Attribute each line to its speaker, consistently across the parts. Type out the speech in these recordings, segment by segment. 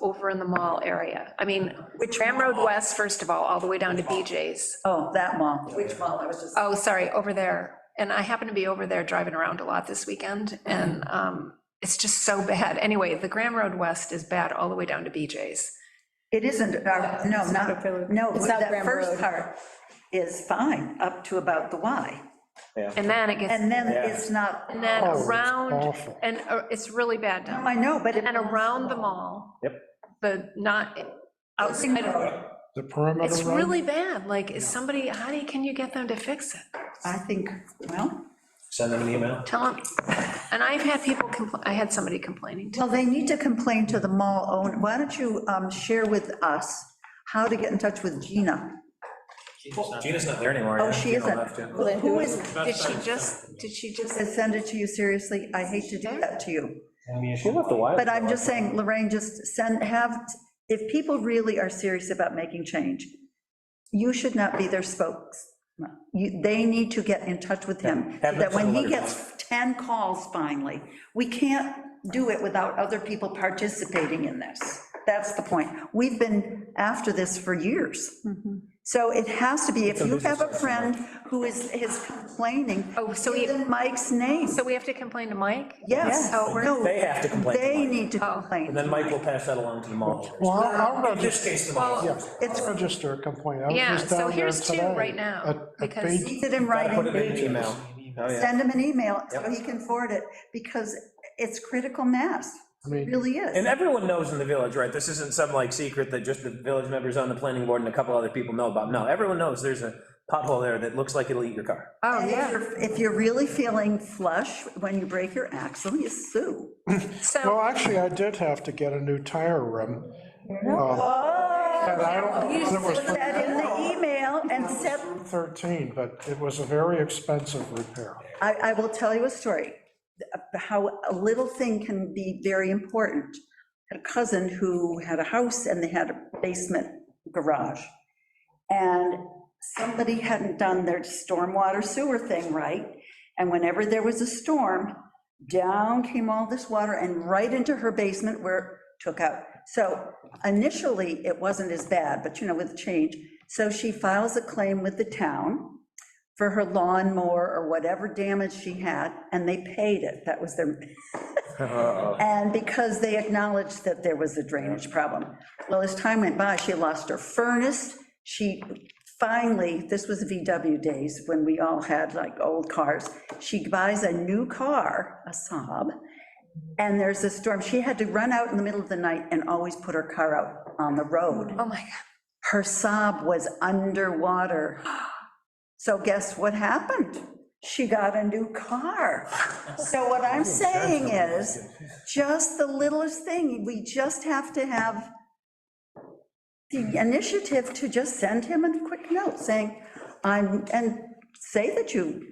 Speaker 1: over in the mall area. I mean, with Tram Road West, first of all, all the way down to BJ's.
Speaker 2: Oh, that mall.
Speaker 3: Which mall, I was just,
Speaker 1: Oh, sorry, over there. And I happen to be over there driving around a lot this weekend, and um, it's just so bad. Anyway, the Grand Road West is bad all the way down to BJ's.
Speaker 2: It isn't, our- no, not, no,
Speaker 4: It's not
Speaker 2: that
Speaker 4: Graham
Speaker 2: first
Speaker 4: Road.
Speaker 2: part is fine, up to about the Y.
Speaker 1: And then it gets,
Speaker 2: And then
Speaker 5: Yeah.
Speaker 2: it's not,
Speaker 1: and then
Speaker 5: Oh, it's
Speaker 1: around,
Speaker 5: awful.
Speaker 1: and uh, it's really bad down.
Speaker 2: I know, but it-
Speaker 1: And around the mall.
Speaker 5: Yep.
Speaker 1: The not,
Speaker 2: Housing
Speaker 1: outside of,
Speaker 2: Road,
Speaker 5: The perimeter.
Speaker 1: it's
Speaker 5: road?
Speaker 1: really bad. Like, is somebody, how do you, can you get them to fix it?
Speaker 2: I think, well,
Speaker 6: Send them an email.
Speaker 1: Tell them, and I've had people complain, I had somebody complaining too.
Speaker 2: well, they need to complain to the mall owner. Why don't you um, share with us how to get in touch with Gina?
Speaker 6: Gina's not there anymore.
Speaker 2: Oh,
Speaker 6: yeah.
Speaker 2: she
Speaker 6: You don't
Speaker 2: isn't.
Speaker 6: have to.
Speaker 2: Who who is,
Speaker 1: Did she just, did she just,
Speaker 2: send it to you, seriously, I hate to do that to you.
Speaker 5: She left a while
Speaker 2: But I'm
Speaker 5: ago,
Speaker 2: just saying, Lorraine, just send, have, if people really are serious about making change, you should not be their spokes. You- They need to get in touch with him, so
Speaker 5: Have them
Speaker 2: that when he
Speaker 5: send letters.
Speaker 2: gets 10 calls finally, we can't do it without other people participating in this. That's the point. We've been after this for years.
Speaker 1: Mm-hmm.
Speaker 2: So it has to be, if you have a friend who is, is complaining,
Speaker 1: Oh, so
Speaker 2: give
Speaker 1: he-
Speaker 2: them Mike's name.
Speaker 1: so we have to complain to Mike?
Speaker 2: Yes.
Speaker 1: How it works?
Speaker 2: No,
Speaker 6: They have to complain to
Speaker 2: They
Speaker 6: Mike.
Speaker 2: need to
Speaker 1: Oh.
Speaker 2: complain.
Speaker 6: And then Mike will pass that along to the mall.
Speaker 5: Well, I'll I'll
Speaker 6: In
Speaker 5: register,
Speaker 6: this case, the mall.
Speaker 1: Well,
Speaker 2: It's-
Speaker 5: I'll register a complaint. I was
Speaker 1: Yeah,
Speaker 5: just
Speaker 1: so
Speaker 5: down there
Speaker 1: here's two
Speaker 5: today
Speaker 1: right now,
Speaker 5: at- at
Speaker 1: because-
Speaker 5: Beach.
Speaker 2: Keep it in
Speaker 6: Gotta Put it
Speaker 2: writing,
Speaker 6: in an email. Oh, yeah.
Speaker 2: send him an email so
Speaker 6: Yep.
Speaker 2: he can forward it, because it's critical mass,
Speaker 5: I
Speaker 2: It
Speaker 5: mean-
Speaker 2: really is.
Speaker 6: And everyone knows in the village, right? This isn't some like secret that just the village members on the planning board and a couple other people know about. No, everyone knows there's a pothole there that looks like it'll eat your car.
Speaker 1: Oh,
Speaker 2: And if
Speaker 1: yeah.
Speaker 2: you're- If you're really feeling flush when you break your axle, you sue.
Speaker 5: Well,
Speaker 1: So,
Speaker 5: actually, I did have to get a new tire rim.
Speaker 6: Oh.
Speaker 5: Uh, And I don't,
Speaker 2: You
Speaker 5: it was
Speaker 2: put that in the email and said,
Speaker 5: 13, but it was a very expensive repair.
Speaker 2: I, I will tell you a story, uh, how a little thing can be very important. Had A cousin who had a house and they had a basement garage. And somebody hadn't done their stormwater sewer thing right. And whenever there was a storm, down came all this water and right into her basement where it took out. So initially, it wasn't as bad, but you know, with change. So she files a claim with the town for her lawnmower or whatever damage she had, and they paid it. That was their, and because they acknowledged that there was a drainage problem. Well, as time went by, she lost her furnace. She finally, this was VW days when we all had like old cars. She buys a new car, a Saab, and there's a storm. She had to run out in the middle of the night and always put her car out on the road
Speaker 1: oh my God,
Speaker 2: her sob was underwater. So guess what happened? She got a new car. So what I'm saying is, just the littlest thing, we just have to have the initiative to just send him a quick note saying, I'm, and say that you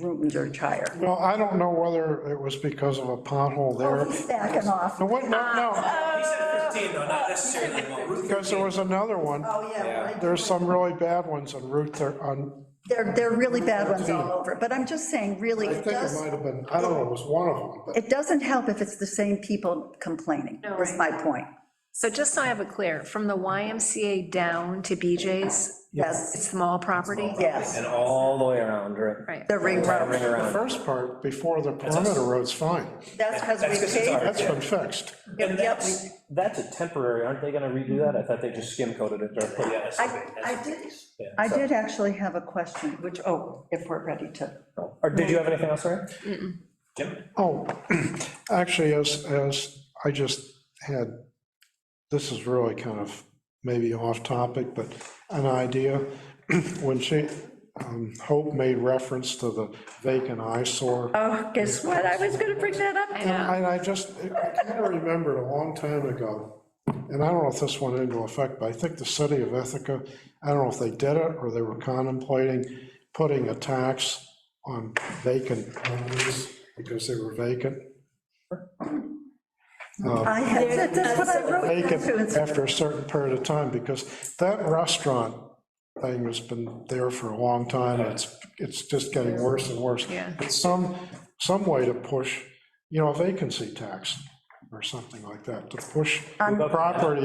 Speaker 2: ruined your tire.
Speaker 5: Well, I don't know whether it was because of a pothole
Speaker 2: Oh,
Speaker 5: there.
Speaker 2: he's Backing off.
Speaker 5: No, what- no, no,
Speaker 6: He said 15, though, not necessarily the mall. Ruth
Speaker 5: because there was another one.
Speaker 2: Oh, yeah. right.
Speaker 5: There's some really bad ones on Route, thir- on,
Speaker 2: They're, they're really bad ones all over, but I'm just saying, really,
Speaker 5: I
Speaker 2: it
Speaker 5: think it
Speaker 2: does
Speaker 5: might have been, I don't know, it was one of them, but
Speaker 2: It doesn't help if it's the same people complaining, was my point.
Speaker 1: so just so I have it clear, from the YMCA down to BJ's,
Speaker 2: Yes,
Speaker 1: it's the mall property?
Speaker 2: yes,
Speaker 6: And all the way around, right?
Speaker 1: Right.
Speaker 2: the ring
Speaker 6: Ring
Speaker 2: road.
Speaker 5: the
Speaker 6: around.
Speaker 5: first part, before the perimeter road's fine.
Speaker 2: That's because we
Speaker 6: That's 'cause it's
Speaker 2: paid.
Speaker 6: ours.
Speaker 5: That's been fixed.
Speaker 2: Yep.
Speaker 6: And that's, that's a temporary, aren't they gonna redo that? I thought they just skim coated it. or-
Speaker 2: I, I did, I did actually have a question, which, oh, if we're ready to.
Speaker 6: Or did you have anything else, Ryan? Jim?
Speaker 5: Oh, actually, as, as I just had, this is really kind of maybe off topic, but an idea. When she, um, Hope made reference to the vacant eyesore.
Speaker 2: Oh, guess what? I was going to bring that up.
Speaker 1: I
Speaker 5: And
Speaker 1: know.
Speaker 5: I- and I just, I kind of remembered a long time ago, and I don't know if this went into effect, but I think the city of Ithaca, I don't know if they did it or they were contemplating putting a tax on vacant homes because they were vacant.
Speaker 2: I had, that's what I wrote. down too.
Speaker 5: vacant
Speaker 2: It's-
Speaker 5: after a certain period of time, because that restaurant thing has been there for a long time, and it's, it's just getting worse and worse.
Speaker 1: Yeah.
Speaker 5: But some, some way to push, you know, a vacancy tax, or something like that, to push
Speaker 2: On-
Speaker 5: property